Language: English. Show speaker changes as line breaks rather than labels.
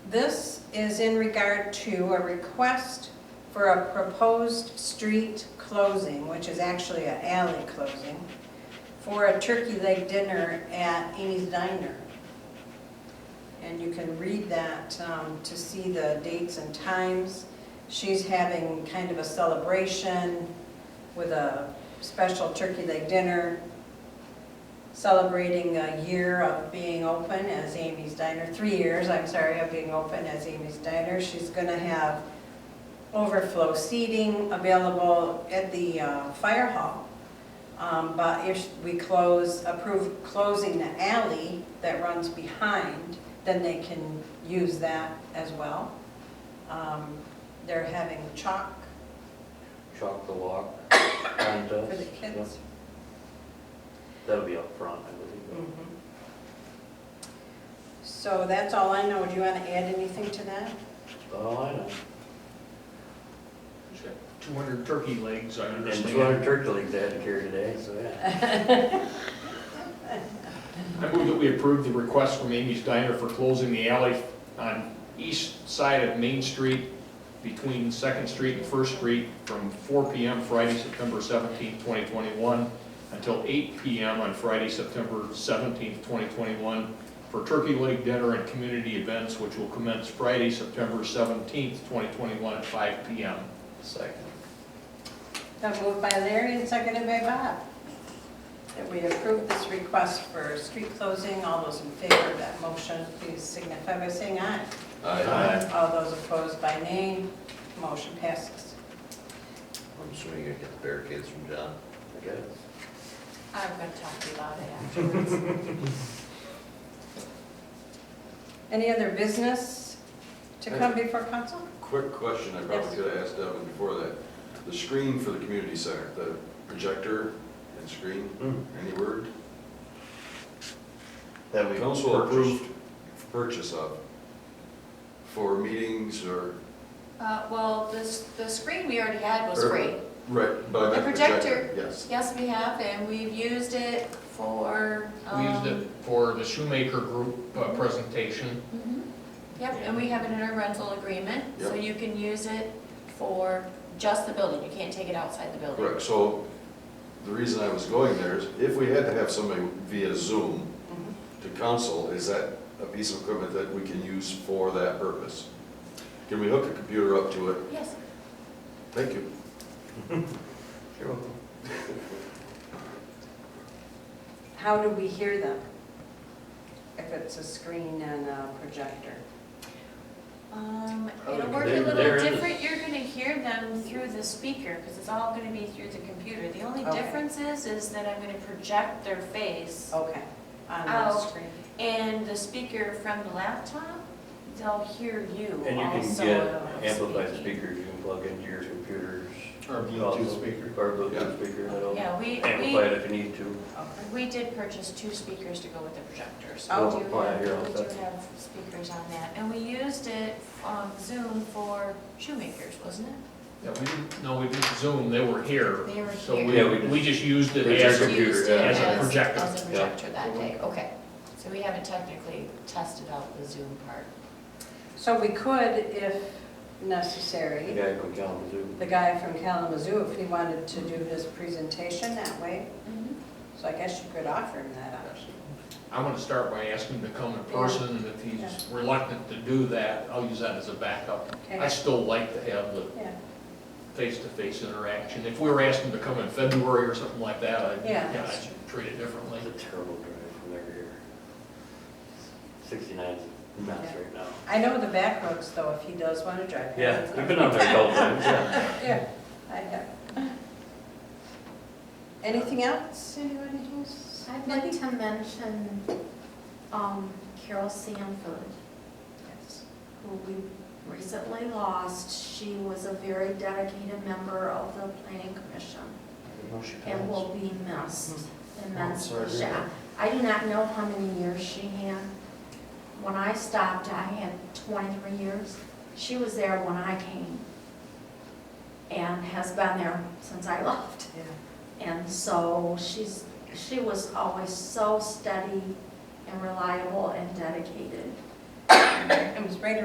This is in regard to a request for a proposed street closing, which is actually an alley closing, for a turkey leg dinner at Amy's Diner. And you can read that um, to see the dates and times. She's having kind of a celebration with a special turkey leg dinner, celebrating a year of being open as Amy's Diner, three years, I'm sorry, of being open as Amy's Diner. She's gonna have overflow seating available at the uh, fire hall. Um, But if we close, approve closing the alley that runs behind, then they can use that as well. Um, They're having chalk
Chalk the walk
for
contest.
the kids.
Yep, That'll be up front, I believe.
Mhm. So that's all I know. Do you want to add anything to that? Mm.
Oh, I know.
She's got 200 turkey legs, I
And
understand.
two hundred turkey legs I had to carry today, so yeah.
I move that we approve the request from Amy's Diner for closing the alley on east side of Main Street between Second Street and First Street from 4 PM Friday, September 17, 2021, until 8 PM on Friday, September 17, 2021, for Turkey Leg Dinner and community events, which will commence Friday, September 17, 2021, at 5 PM.
Second.
That moved by Larry and seconded by Bob. That we approve this request for street closing. All those in favor of that motion, please signify by saying aye.
Aye.
All those opposed by nay. Motion passes.
I'm assuming you're gonna get the barricades from John.
I got it.
I'm gonna talk to you about it afterwards.
Any other business to come before council?
Quick question, I
Yes.
probably could have asked Devin before that. The screen for the community center, the projector and screen,
Hmm.
any word?
That we.
Council
purchased.
approved purchase of for meetings or,
Uh, well, this, the screen we already had was free.
right, but I
The
meant projector.
projector.
Yes.
Yes, we have, and we've used it for,
We
um.
used it for the Shoemaker Group uh, presentation.
mhm. Yep, and we have it in our rental agreement, so
Yep.
you can use it for just the building, you can't take it outside the building.
Correct, so the reason I was going there is if we had to have somebody via Zoom
Mhm.
to council, is that a piece of equipment that we can use for that purpose? Can we hook a computer up to it?
Yes,
Thank you.
You're welcome.
How do we hear them? If it's a screen and a projector?
um,
Oh,
it'll work
they-
a
they're
little
in the-
different, you're gonna hear them through the speaker, because it's all gonna be through the computer. The only
Okay.
difference is, is that I'm gonna project their face
Okay, on the
Oh.
screen.
And the speaker from the laptop, they'll hear you
And you can
also.
get amplified
speaking.
speakers you can plug into your computers.
Or
Also,
Bluetooth speaker.
Or
Yeah.
Bluetooth speaker, that'll
Yeah, we,
amplify it
we,
if you need to.
we did purchase two speakers to go with the projector,
Oh,
so we do
why I
have,
hear all
we
that.
do have speakers on that. And we used it on Zoom for shoemakers, wasn't it?
Yeah, we didn't, no, we didn't Zoom, they were here.
They were
So
here.
Yeah, we
we,
just-
we just used it
We
as
just
a,
computer,
Used it
yeah.
As a projector.
As a
Yeah.
projector that day, okay. So we haven't technically tested out the Zoom part.
So we could, if necessary.
The guy from Kalamazoo.
the guy from Kalamazoo if he wanted to do his presentation that way. So I guess you could offer him that option.
I want to start by asking him to come in person, and if he's reluctant to do that, I'll use that as a backup. I
Okay,
still like to have the
yeah,
face-to-face interaction. If we were asking him to come in February or something like that, I'd,
Yeah.
yeah, I'd treat it differently.
It's a terrible drive from there to here. Sixty-nine's nuts
Yeah.
right now.
I know the back roads though, if he does want to drive.
Yeah, we've been up there a couple times, yeah.
Yeah, I have. Anything else, anybody who's?
I'd like to mention um, Carol Sanford,
Yes.
who we recently lost. She was a very dedicated member of the planning commission and will be missed
Oh,
immensely.
sorry.
She- I do not know how many years she had. When I stopped, I had 23 years. She was there when I came and has been there since I left.
Yeah.
And so she's, she was always so steady and reliable and dedicated.
It was right